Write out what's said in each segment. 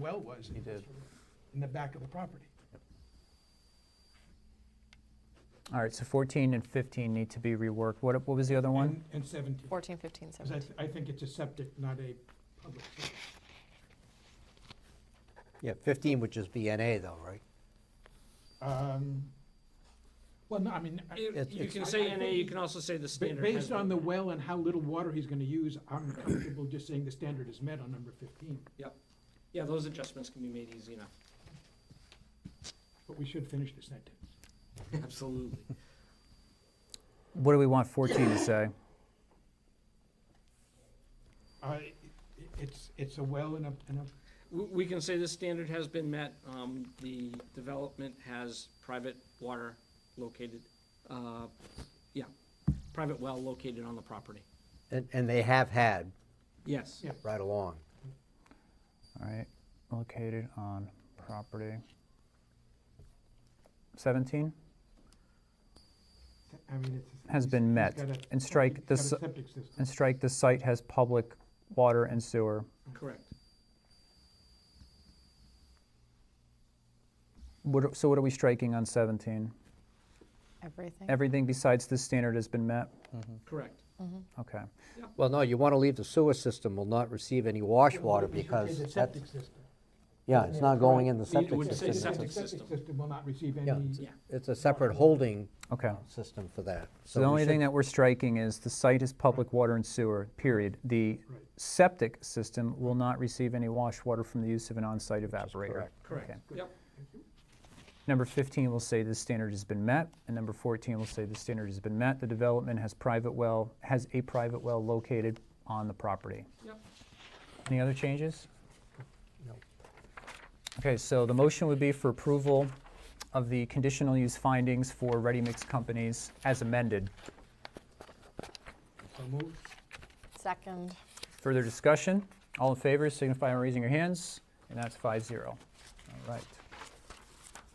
well was. He did. In the back of the property. All right, so 14 and 15 need to be reworked. What, what was the other one? And- And seventeen, 14, 15, because I, 17. th- I think it's a septic, not a public. service. Yeah, 15 would just be NA though, right? Um, Well, no, I mean. I- It's- You it's- can say NA, you can also say the Ba- standard. has Based been on the met. well and how little water he's gonna use, I'm comfortable just saying the standard is met on number fifteen, Yeah, those adjustments can be made easy enough. but we should finish the sentence. Absolutely. What do we want 14 to say? Uh, i- i- It's, it's a well and a, and a, We, we can say the standard has been met, um, the development has private water located, uh, yeah, private well located on the property. And, and they have had Yes. Yeah. right along. All right, located on property. 17 I mean, it's. Has been he's- he's met. got a And strike septic- the he's got s- a septic system. and strike the site has public water and sewer. Correct. What, are- so what are we striking on 17? Everything? Everything besides this standard has been met? Correct. Okay. Well, no, you want to leave the sewer system will not receive any wash water We should say because the that's, septic system. yeah, it's not going in the Correct. It septic would say The system. septic septic system. System will not receive Yeah, any. Yeah. It's a separate holding Okay. system for that. So the we only thing should- that we're striking is the site is public water and sewer, period. The Right. septic system will not receive any wash water from the use of an on-site evaporator. correct. Correct. Okay. Yep. Number 15 will say the standard has been met, and number 14 will say the standard has been met. The development has private well, has a private well located on the property. Yep. Any other changes? No. Okay, so the motion would be for approval of the conditional use findings for ready-mix companies as amended. So moved. Second. Further discussion? All in favor signify by raising your hands, and that's 5-0. All right.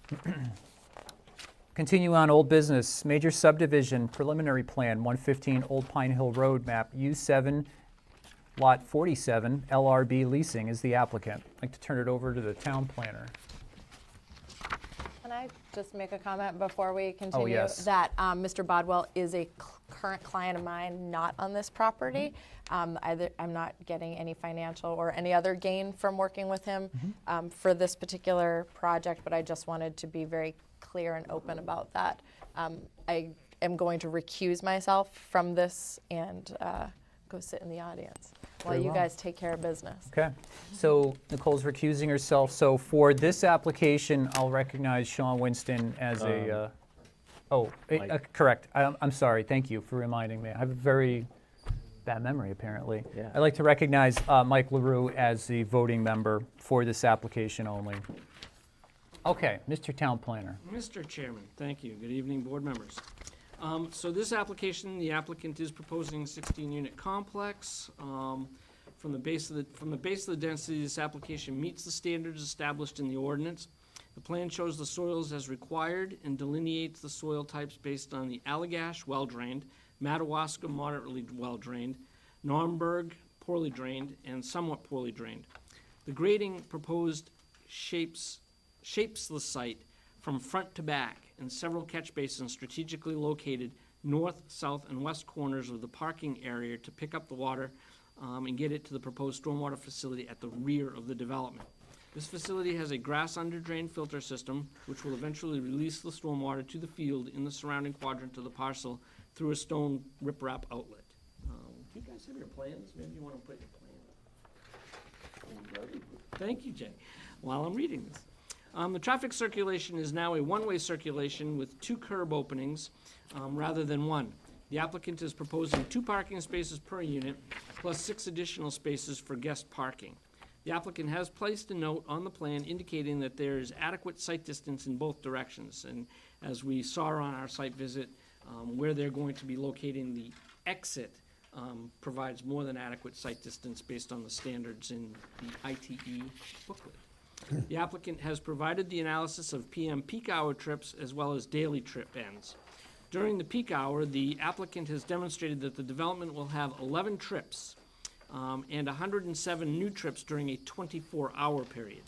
Continue on old business, major subdivision preliminary plan, 115 Old Pine Hill Road, map U7, lot 47, LRB Leasing is the applicant. I'd like to turn it over to the town planner. Can I just make a comment before we continue? Oh, yes. That um, Mr. Bodwell is a cl- current client of mine, not on this property. Mm-hmm. Um, either- I'm not getting any financial or any other gain from working with him Mm-hmm. um, for this particular project, but I just wanted to be very clear and open about that. Um, I am going to recuse myself from this and uh, go sit in the audience while Very you well. guys take care of business. Okay, so Nicole's recusing herself, so for this application, I'll recognize Sean Winston as a, uh, oh, eh, Um, Mike. uh, correct, I'm, I'm sorry, thank you for reminding me, I have a very bad memory, apparently. Yeah. I'd like to recognize uh, Mike LaRue as the voting member for this application only. Okay, Mr. Town Planner, Mr. Chairman, thank you. Good evening, board members. Um, So this application, the applicant is proposing 16-unit complex. Um, From the base of the, from the base of the density, this application meets the standards established in the ordinance. The plan shows the soils as required and delineates the soil types based on the Allegash well-drained, Madawaska moderately well-drained, Naumburg poorly drained, and somewhat poorly drained. The grading proposed shapes, shapes the site from front to back in several catch basins strategically located north, south, and west corners of the parking area to pick up the water um, and get it to the proposed stormwater facility at the rear of the development. This facility has a grass under drain filter system, which will eventually release the stormwater to the field in the surrounding quadrant of the parcel through a stone riprap outlet. Um, Do you guys have your plans? Maybe you want to put your plan up. Thank you, Jay, while I'm reading this. Um, the traffic circulation is now a one-way circulation with two curb openings, um, rather than one. The applicant is proposing two parking spaces per unit, plus six additional spaces for guest parking. The applicant has placed a note on the plan indicating that there is adequate site distance in both directions. And as we saw on our site visit, um, where they're going to be locating the exit um, provides more than adequate site distance based on the standards in the ITE booklet. The applicant has provided the analysis of PM peak hour trips as well as daily trip ends. During the peak hour, the applicant has demonstrated that the development will have 11 trips um, and 107 new trips during a 24-hour period.